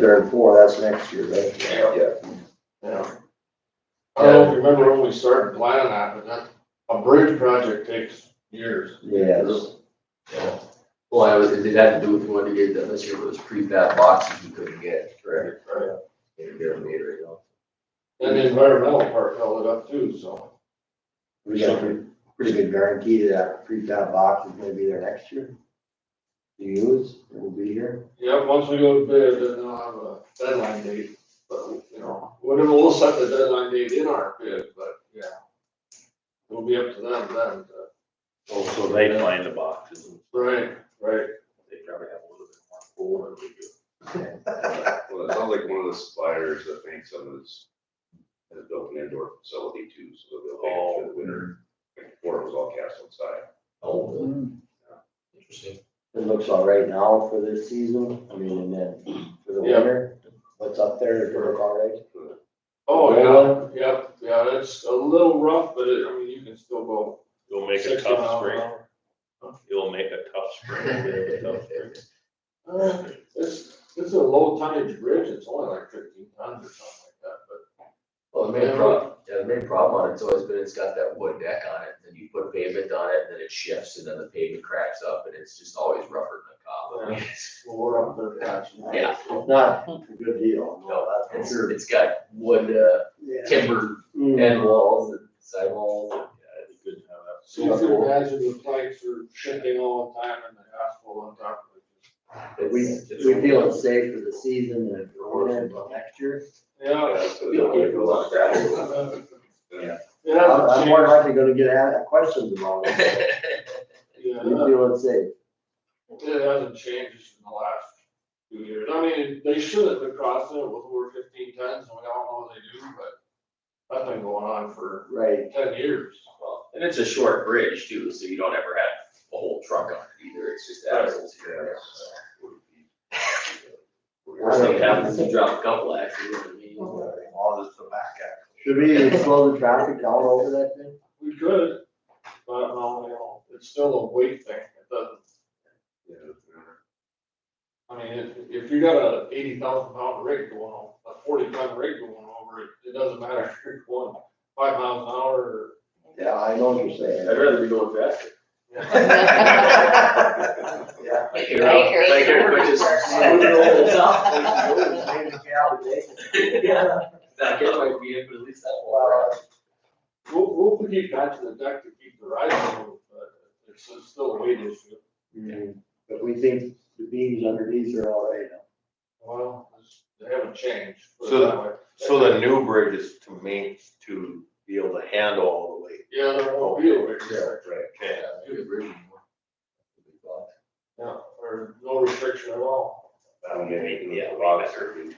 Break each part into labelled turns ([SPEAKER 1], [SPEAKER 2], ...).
[SPEAKER 1] third and fourth, that's next year, right?
[SPEAKER 2] Yeah.
[SPEAKER 1] Yeah.
[SPEAKER 3] I don't know if you remember when we started planning that, but that, a bridge project takes years.
[SPEAKER 1] Yes,
[SPEAKER 2] Well, I was, it had to do with one of the years that this year was prefab boxes we couldn't get, correct?
[SPEAKER 3] Right.
[SPEAKER 2] And they're made right now.
[SPEAKER 3] And the environmental part held it up too, so.
[SPEAKER 1] we got a pretty- pretty good guarantee that pre-town box is gonna be there next year. Do you use, it will be here.
[SPEAKER 3] Yeah, once we go to bid, then I'll have a deadline date, but, you know, whatever, we'll set the deadline date in our bid, but, yeah. It'll be up to them then, but-
[SPEAKER 4] Oh, so they plan the boxes, and
[SPEAKER 3] right, right.
[SPEAKER 4] they probably have a little bit more pull than we do.
[SPEAKER 5] Well, it sounds like one of the suppliers that makes them is, has built an indoor facility too, so they'll be for the winter. Before it was all cast outside.
[SPEAKER 2] Oh, really? Interesting.
[SPEAKER 1] It looks all right now for this season, I mean, and then for the
[SPEAKER 3] Yeah.
[SPEAKER 1] winter, what's up there, is it look all right?
[SPEAKER 3] Oh,
[SPEAKER 1] Roll
[SPEAKER 4] uh,
[SPEAKER 3] yeah, yeah, yeah, it's a little rough, but it, I mean, you can still go.
[SPEAKER 4] It'll make a
[SPEAKER 3] 60
[SPEAKER 4] tough
[SPEAKER 3] mile an
[SPEAKER 4] spring,
[SPEAKER 3] hour.
[SPEAKER 4] it'll make a tough spring, it'll be a tough spring.
[SPEAKER 3] Uh, It's, it's a low tonnage bridge, it's only like fifteen tons or something like that, but
[SPEAKER 2] Well, the main problem, yeah, the main problem on it's always been, it's got that wood deck on it, then you put pavement on it, and then it shifts, and then the pavement cracks up, and it's just always rougher than a cop.
[SPEAKER 3] Well, we're up there patching.
[SPEAKER 2] Yeah.
[SPEAKER 1] It's Not a good deal,
[SPEAKER 2] No,
[SPEAKER 1] no, that's for
[SPEAKER 2] It's,
[SPEAKER 1] sure.
[SPEAKER 2] it's got wood, uh,
[SPEAKER 1] Yeah.
[SPEAKER 2] timber
[SPEAKER 1] Mm.
[SPEAKER 2] end walls and side walls, and,
[SPEAKER 4] Yeah, it'd be good to have that.
[SPEAKER 3] So you can imagine the plates are shifting all the time and the asphalt on top of it.
[SPEAKER 2] it's-
[SPEAKER 1] We,
[SPEAKER 2] it's-
[SPEAKER 1] we feel it's safe for the season and for winter, but next year.
[SPEAKER 3] Yeah.
[SPEAKER 5] Yeah, so they'll make a lot of gravel.
[SPEAKER 3] It
[SPEAKER 1] I'm
[SPEAKER 3] hasn't
[SPEAKER 1] I'm more
[SPEAKER 3] changed.
[SPEAKER 1] likely gonna get a- questions about it.
[SPEAKER 3] Yeah,
[SPEAKER 1] We feel it's safe.
[SPEAKER 3] It hasn't changed in the last few years. I mean, they should have been crossing it with over fifteen tons and we all know they do, but that's been going on for
[SPEAKER 1] Right,
[SPEAKER 3] ten years.
[SPEAKER 2] Well, And it's a short bridge too, so you don't ever have a whole truck on it either, it's just axles here and there. Worst thing happens is you drop a couple axles, you know what I mean?
[SPEAKER 5] All this tobacco.
[SPEAKER 1] should we even slow the traffic down over that thing?
[SPEAKER 3] We could, but no, you know, it's still a weight thing. It doesn't, I mean, if, if you got a eighty thousand pound rig going on, a forty ton rig going over it, it doesn't matter if you're going five miles an hour or
[SPEAKER 1] Yeah, I know what you're
[SPEAKER 2] I'd
[SPEAKER 1] saying.
[SPEAKER 2] rather be going faster.
[SPEAKER 1] Yeah.
[SPEAKER 2] Like, everybody just moving over the top. Not get my vehicle, at least that one.
[SPEAKER 1] Wow.
[SPEAKER 3] We'll, we'll keep that to the deck to keep the ride moving, but it's it's still a weight issue.
[SPEAKER 1] Mm, But we think the beams underneath are all right now.
[SPEAKER 3] Well, it's- they haven't changed. put it
[SPEAKER 4] So-
[SPEAKER 3] that way.
[SPEAKER 4] So the new bridge is to main, to be able to handle all the weight.
[SPEAKER 3] Yeah, there won't be a weight restriction.
[SPEAKER 4] Okay.
[SPEAKER 3] Yeah, or no restriction at all.
[SPEAKER 5] That'll make it a lot serving,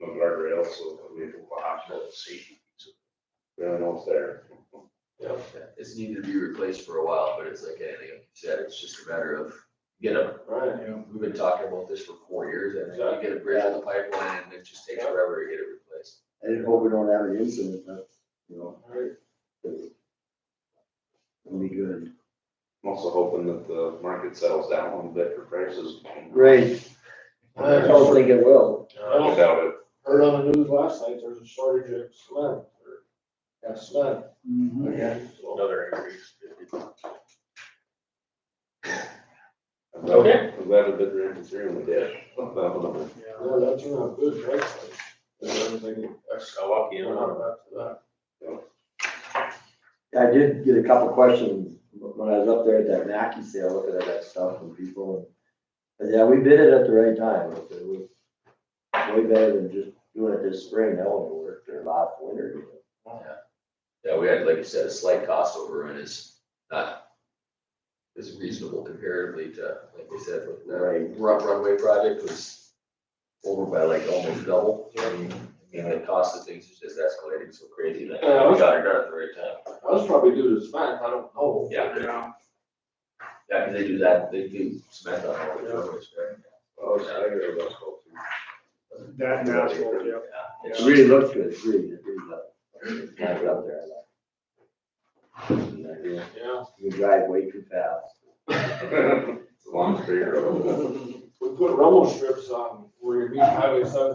[SPEAKER 5] no guardrails, so it'll be a lot of safety. Really know it's there.
[SPEAKER 3] Yeah.
[SPEAKER 2] It's needed to be replaced for a while, but it's like anything you said, it's just a matter of, you know,
[SPEAKER 3] Right.
[SPEAKER 2] we've been talking about this for four years, and you get a bridge on the pipeline, and it just takes forever to get it replaced.
[SPEAKER 1] I just hope we don't have an incident, but, you know,
[SPEAKER 3] Right.
[SPEAKER 1] it'll be good.
[SPEAKER 5] I'm also hoping that the market settles down a little bit for prices.
[SPEAKER 1] Great, I don't
[SPEAKER 3] I
[SPEAKER 1] think it will.
[SPEAKER 3] don't-
[SPEAKER 5] Without it,
[SPEAKER 3] Heard on the news last night, there's a shortage of cement or, yeah, cement. Again, so.
[SPEAKER 4] Another increase.
[SPEAKER 5] I'm glad, I'm glad it didn't rain through when it did. That was a-
[SPEAKER 3] Yeah, that's a good price. like, And everything, that's,
[SPEAKER 4] I walk in
[SPEAKER 3] you know, back to that.
[SPEAKER 1] I did get a couple questions when I was up there at that Mackey sale, looking at that stuff from people. and- But yeah, we bid it at the right time, It was way better than just doing it this spring, that wouldn't work, or last winter.
[SPEAKER 2] Yeah, we had, like you said, a slight cost overrun is not, is reasonable comparatively to, like we said, with the
[SPEAKER 1] Right.
[SPEAKER 2] run- runway project was over by like almost double. I mean, I mean, the cost of things is just escalating so crazy that
[SPEAKER 3] Yeah.
[SPEAKER 2] we got it done at the right time.
[SPEAKER 3] That was probably due to cement, I don't know.
[SPEAKER 2] Yeah. Yeah, 'cause they do that, they do cement on all the runways, right?
[SPEAKER 5] Oh, I was excited about that too.
[SPEAKER 6] That and asphalt, yeah.
[SPEAKER 2] Yeah.
[SPEAKER 1] It really looks good, it's really, it really does. It's not up there, I like. it.
[SPEAKER 5] Yeah.
[SPEAKER 3] Yeah.
[SPEAKER 1] You drive way too fast.
[SPEAKER 5] It's a long straight road.
[SPEAKER 3] We put rumble strips on where you meet highway seven